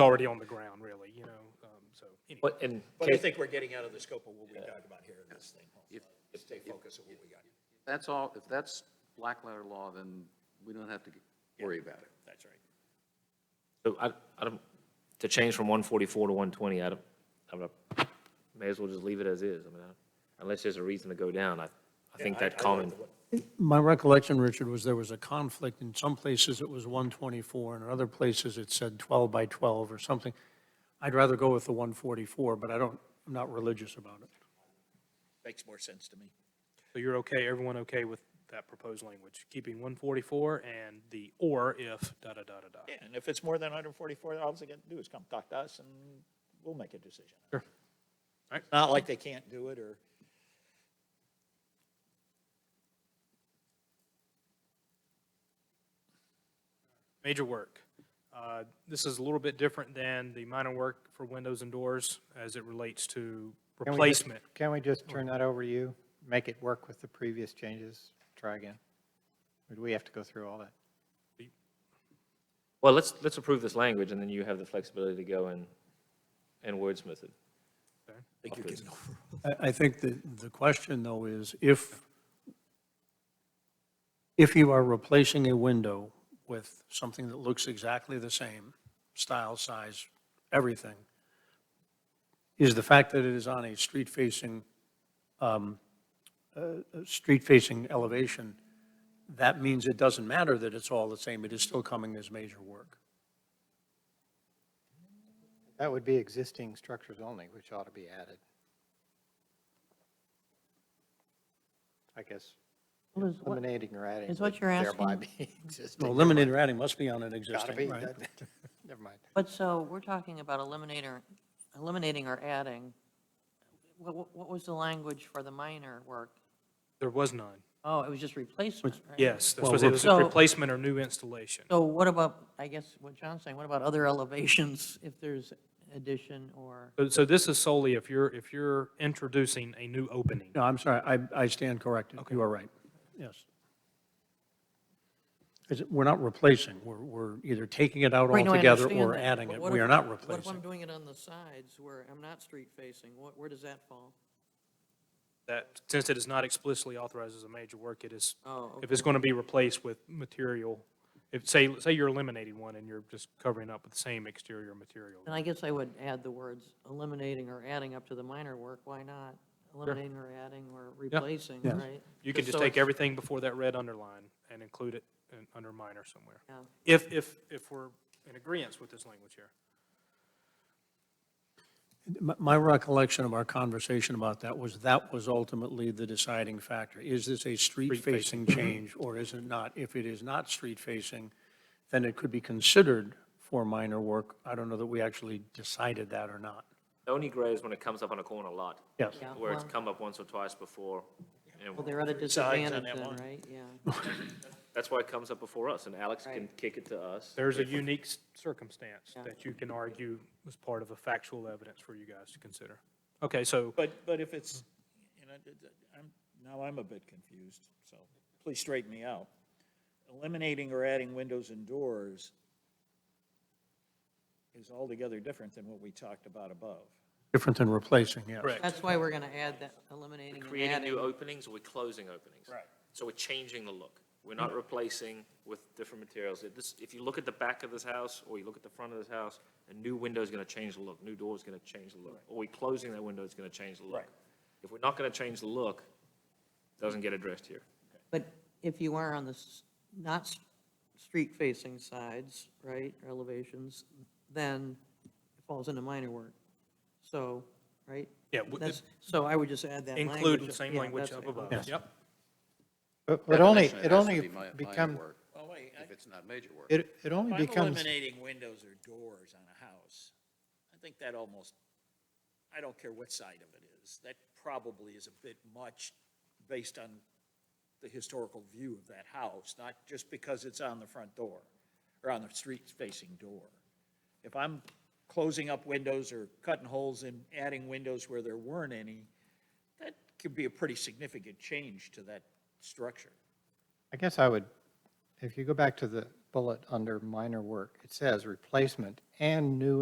already on the ground, really, you know, um, so. anyway. What, and But I Casey, think we're getting out of the scope of what we talked about here in this thing. Stay focused on what we got. That's all, if that's black letter law, then we don't have to worry about it. That's right. so I, I don't, to change from one forty-four to one twenty, I don't, I'm not, may as well just leave it as is. I mean, I- unless there's a reason to go down, I, I think that common, My recollection, Richard, was there was a conflict. In some places, it was 124, and in other places, it said 12 by 12 or something. I'd rather go with the 144, but I don't, I'm not religious about it. Makes more sense to me. So you're okay, everyone okay with that proposed language, keeping 144 and the or if da-da-da-da-da? Yeah, and if it's more than 144, all they got to do is come talk to us and we'll make a decision. Sure. Alright. It's Not like they can't do it or, Major work. Uh, This is a little bit different than the minor work for windows and doors as it relates to Can we just- replacement. Can we just turn that over to you? Make it work with the previous changes? Try again? Would we have to go through all that? well, let's, let's approve this language and then you have the flexibility to go and, and wordsmith it. I, I think the, the question, though, is if, if you are replacing a window with something that looks exactly the same, style, size, everything, is the fact that it is on a street-facing, um, uh, street-facing elevation, that means it doesn't matter that it's all the same, it is still coming as major work. That would be existing structures only, which ought to be added. I guess Well, is what- eliminating or adding. is what would you're Thereby asking- be existing. No, eliminated adding must be on an Gotta existing, be, right? doesn't it? never mind. But so we're talking about eliminator, eliminating or adding. What, what- what was the language for the minor work? There was none. Oh, it was just replacement, right? Yes, that's Well, what it was, so- replacement or new installation. So what about, I guess what John's saying, what about other elevations if there's addition or? So- So this is solely if you're, if you're introducing a new opening. No, I'm sorry, I, I stand corrected. You are right. Yes. Is it- We're not replacing, we're, we're either taking it out Right, no, I altogether understand or that, adding but it. what We if- are not What if I'm replacing. doing it on the sides where I'm not street facing? What, where does that fall? That, since it is not explicitly authorized as a major work, it is, Oh, if it's going to be replaced with material, if, say, say you're eliminating one and you're just covering up with the same exterior material. And I guess I would add the words eliminating or adding up to the minor work. Why not? Eliminating or adding or replacing, Yes. right? You can just so take it's- everything before that red underline and include it in- under minor somewhere. Yeah. If, if, if we're in agreeance with this language here. My- My recollection of our conversation about that was that was ultimately the deciding factor. Is this a street-facing change or is it not? If it is not street-facing, then it could be considered for minor work. I don't know that we actually decided that or not. It Only grows when it comes up on a corner lot, Yes. Yeah, where it's well- come up once or twice before. and Well, they're at a sides on disadvantage that then, one. right? Yeah. That's why it comes up before us and Alex can Right. kick it to us. There's a unique s- circumstance Yeah. that you can argue was part of a factual evidence for you guys to consider. Okay, so but, but if it's, you know, d- d- I'm, now I'm a bit confused, so please straighten me out. Eliminating or adding windows and doors is altogether different than what we talked about above. Different than replacing, yes. Correct. That's why we're going to add that, eliminating and Creating new adding. openings or we're closing openings. Right. So we're changing the look. We're not replacing with different materials. If this, if you look at the back of this house or you look at the front of this house, a new window's gonna change the look, new door's gonna change the look. Or we're closing that window, it's gonna change the look. Right. If we're not gonna change the look, it doesn't get addressed here. But if you are on the s- not s- street facing sides, right, or elevations, then it falls into minor work. So, right? Yeah, w- That's- So I would just add that language. include the same Yeah, language that's up it. above. Yes. Yep. But but only, Definition, has it to only be mi- minor become, work, Oh, wait, If it's not major work. it, it only If I'm becomes, eliminating windows or doors on a house, I think that almost, I don't care what side of it is, that probably is a bit much based on the historical view of that house, not just because it's on the front door or on the street facing door. If I'm closing up windows or cutting holes and adding windows where there weren't any, that could be a pretty significant change to that structure. I guess I would, if you go back to the bullet under minor work, it says replacement and new